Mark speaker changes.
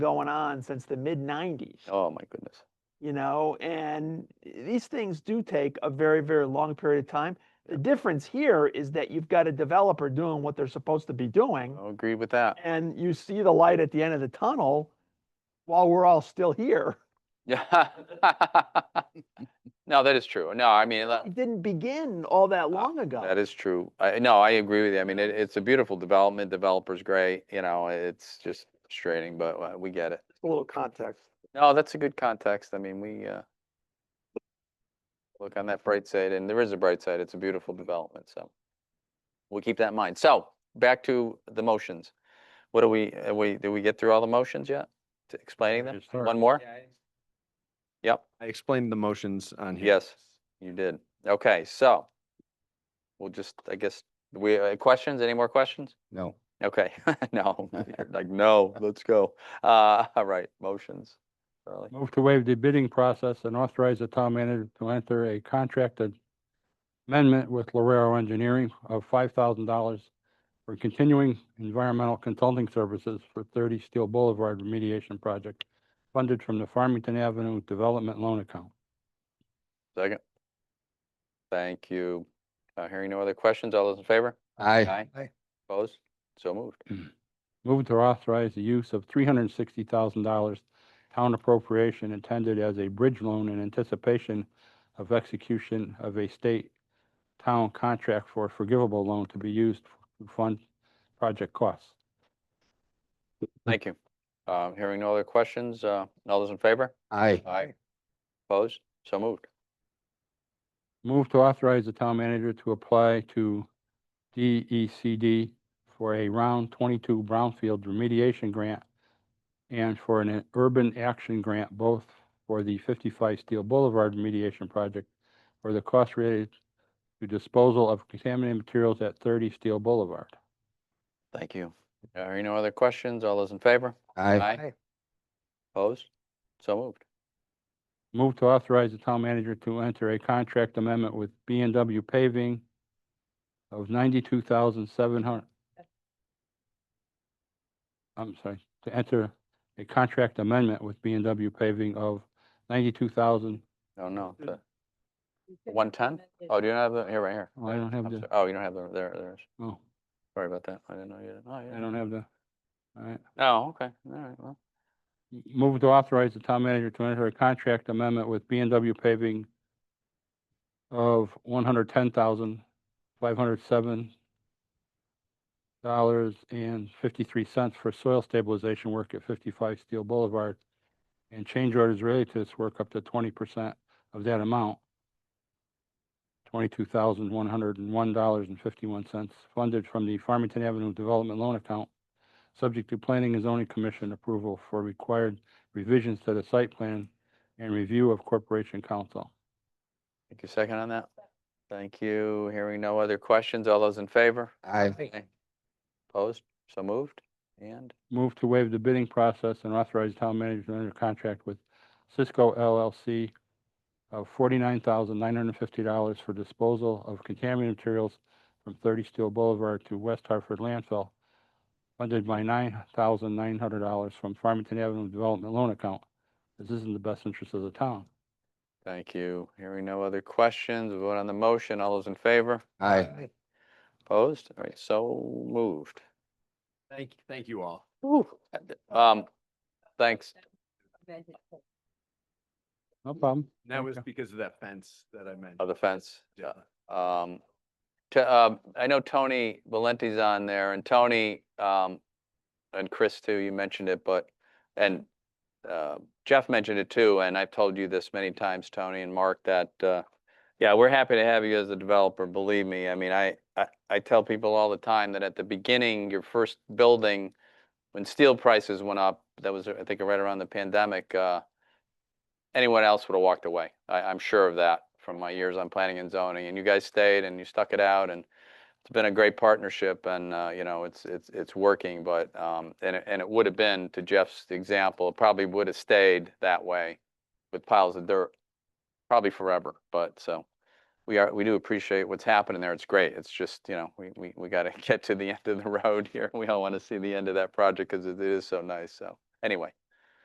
Speaker 1: going on since the mid nineties.
Speaker 2: Oh, my goodness.
Speaker 1: You know, and these things do take a very, very long period of time. The difference here is that you've got a developer doing what they're supposed to be doing
Speaker 2: I'll agree with that.
Speaker 1: and you see the light at the end of the tunnel while we're all still here.
Speaker 2: Yeah. No, that is true. No, I mean, that-
Speaker 1: It didn't begin all that long ago.
Speaker 2: that is true. I, no, I agree with you. I mean, it, it's a beautiful development. Developer's great, you know, it's just frustrating, but uh, we get it.
Speaker 1: a little context.
Speaker 2: No, that's a good context. I mean, we, uh, look on that bright side, and there is a bright side. It's a beautiful development, so we'll keep that in mind. So, back to the motions. What do we, uh, we, did we get through all the motions yet? To Explaining them?
Speaker 3: Just start.
Speaker 2: One more? Yep.
Speaker 3: I explained the motions on here.
Speaker 2: Yes, you did. Okay, so we'll just, I guess, we, uh, questions, any more questions?
Speaker 3: No.
Speaker 2: Okay, no, you're like, no, let's go. Uh, all right, motions. Charlie.
Speaker 4: Move to waive the bidding process and authorize the town manager to enter a contract amendment with Lorero Engineering of five thousand dollars for continuing environmental consulting services for thirty Steel Boulevard remediation project funded from the Farmington Avenue Development Loan Account.
Speaker 2: Second. Thank you. Uh, hearing no other questions, all those in favor?
Speaker 3: Aye.
Speaker 2: Aye. Opposed? So moved.
Speaker 4: Move to authorize the use of three hundred and sixty thousand dollars town appropriation intended as a bridge loan in anticipation of execution of a state town contract for a forgivable loan to be used to fund project costs.
Speaker 2: Thank you. Um, hearing no other questions, uh, all those in favor?
Speaker 3: Aye.
Speaker 2: Aye. Opposed? So moved.
Speaker 4: Move to authorize the town manager to apply to DECD for a round twenty-two brownfield remediation grant and for an urban action grant, both for the fifty-five Steel Boulevard remediation project for the cost related to disposal of contaminated materials at thirty Steel Boulevard.
Speaker 2: Thank you. Uh, Hearing no other questions, all those in favor?
Speaker 3: Aye.
Speaker 2: Aye. Opposed? So moved.
Speaker 4: Move to authorize the town manager to enter a contract amendment with B and W paving of ninety-two thousand seven hundred. I'm sorry, to enter a contract amendment with B and W paving of ninety-two thousand.
Speaker 2: No, Oh, no.
Speaker 1: Understood.
Speaker 2: the- 110? Oh, do you not have the, here, right here.
Speaker 4: Oh, I don't have
Speaker 2: I'm
Speaker 4: the-
Speaker 2: sorry. Oh, you don't have the, there, there's,
Speaker 4: Oh,
Speaker 2: sorry about that. I didn't know you didn't. Oh,
Speaker 4: I
Speaker 2: yeah.
Speaker 4: don't have the, all right.
Speaker 2: Oh, okay. All right, well.
Speaker 4: Move to authorize the town manager to enter a contract amendment with B and W paving of one hundred ten thousand, five hundred seven dollars and fifty-three cents for soil stabilization work at fifty-five Steel Boulevard. And change orders related to this work up to twenty percent of that amount. Twenty-two thousand, one hundred and one dollars and fifty-one cents funded from the Farmington Avenue Development Loan Account subject to planning and zoning commission approval for required revisions to the site plan and review of corporation council.
Speaker 2: Take your second on that. Thank you. Hearing no other questions. All those in favor?
Speaker 3: Aye.
Speaker 2: Opposed? So moved? And
Speaker 4: Move to waive the bidding process and authorize town manager to enter contract with Cisco LLC of forty-nine thousand nine hundred and fifty dollars for disposal of contaminated materials from Thirty Steel Boulevard to West Hartford landfill, funded by nine thousand nine hundred dollars from Farmington Avenue Development Loan Account. This is in the best interest of the town.
Speaker 2: thank you. Hearing no other questions. We'll Vote on the motion. All those in favor?
Speaker 3: Aye.
Speaker 2: Opposed? All right, so moved.
Speaker 3: Thank, thank you all.
Speaker 2: Um, thanks.
Speaker 4: No problem.
Speaker 3: And That was
Speaker 4: Okay.
Speaker 3: because of that fence that I mentioned.
Speaker 2: Of uh, the fence.
Speaker 3: Yeah.
Speaker 2: Um, to, uh, I know Tony Valenti's on there and Tony, um, and Chris too, you mentioned it, but, and, uh, Jeff mentioned it too, and I've told you this many times, Tony and Mark, that, uh, yeah, we're happy to have you as a developer, believe me. I mean, I, I, I tell people all the time that at the beginning, your first building, when steel prices went up, that was, I think, right around the pandemic, uh, anyone else would have walked away. I, I'm sure of that from my years on planning and zoning. And you guys stayed and you stuck it out and it's been a great partnership and, uh, you know, it's, it's, it's working, but, um, and it, and it would have been, to Jeff's example, it probably would have stayed that way with piles of dirt, probably forever, but so. We are, we do appreciate what's happening there. It's great. It's just, you know, we, we, we gotta get to the end of the road here. We all wanna see the end of that project because it is so nice, so. Anyway,